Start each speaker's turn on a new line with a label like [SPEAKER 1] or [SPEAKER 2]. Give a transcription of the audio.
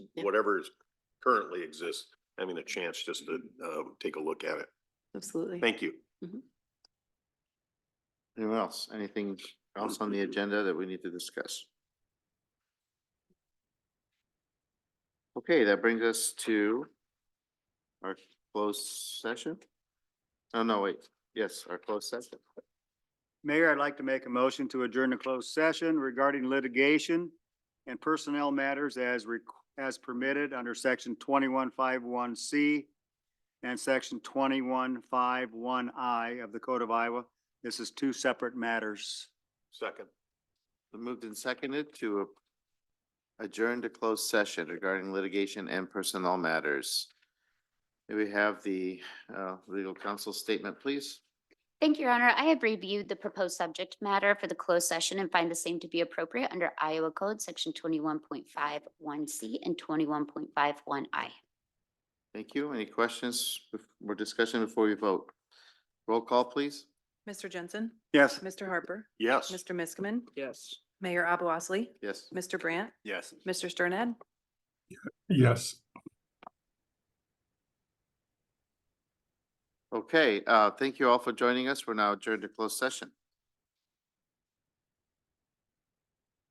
[SPEAKER 1] Yeah.
[SPEAKER 2] whatever is currently exists, having a chance just to, uh, take a look at it.
[SPEAKER 1] Absolutely.
[SPEAKER 2] Thank you.
[SPEAKER 3] Anyone else? Anything else on the agenda that we need to discuss? Okay, that brings us to our closed session. Oh, no, wait. Yes, our closed session.
[SPEAKER 4] Mayor, I'd like to make a motion to adjourn the closed session regarding litigation and personnel matters as re, as permitted under section twenty-one five one C and section twenty-one five one I of the Code of Iowa. This is two separate matters.
[SPEAKER 2] Second.
[SPEAKER 3] We Moved and seconded to adjourn to closed session regarding litigation and personnel matters. May we have the uh, legal counsel statement, please?
[SPEAKER 5] Thank you, Your Honor. I have reviewed the proposed subject matter for the closed session and find the same to be appropriate under Iowa Code, Section twenty-one point five one C and twenty-one point five one I.
[SPEAKER 3] Thank you. Any questions bef- or discussion before we vote? Roll call, please.
[SPEAKER 1] Mr. Jensen,
[SPEAKER 4] Yes.
[SPEAKER 1] Mr. Harper,
[SPEAKER 2] Yes.
[SPEAKER 1] Mr. Miskman,
[SPEAKER 2] Yes.
[SPEAKER 1] Mayor Abou Osley,
[SPEAKER 3] Yes.
[SPEAKER 1] Mr. Brandt,
[SPEAKER 2] Yes.
[SPEAKER 1] Mr. Sternad.
[SPEAKER 6] Yes.
[SPEAKER 3] Okay, uh, thank you all for joining us. We're now adjourned to closed session.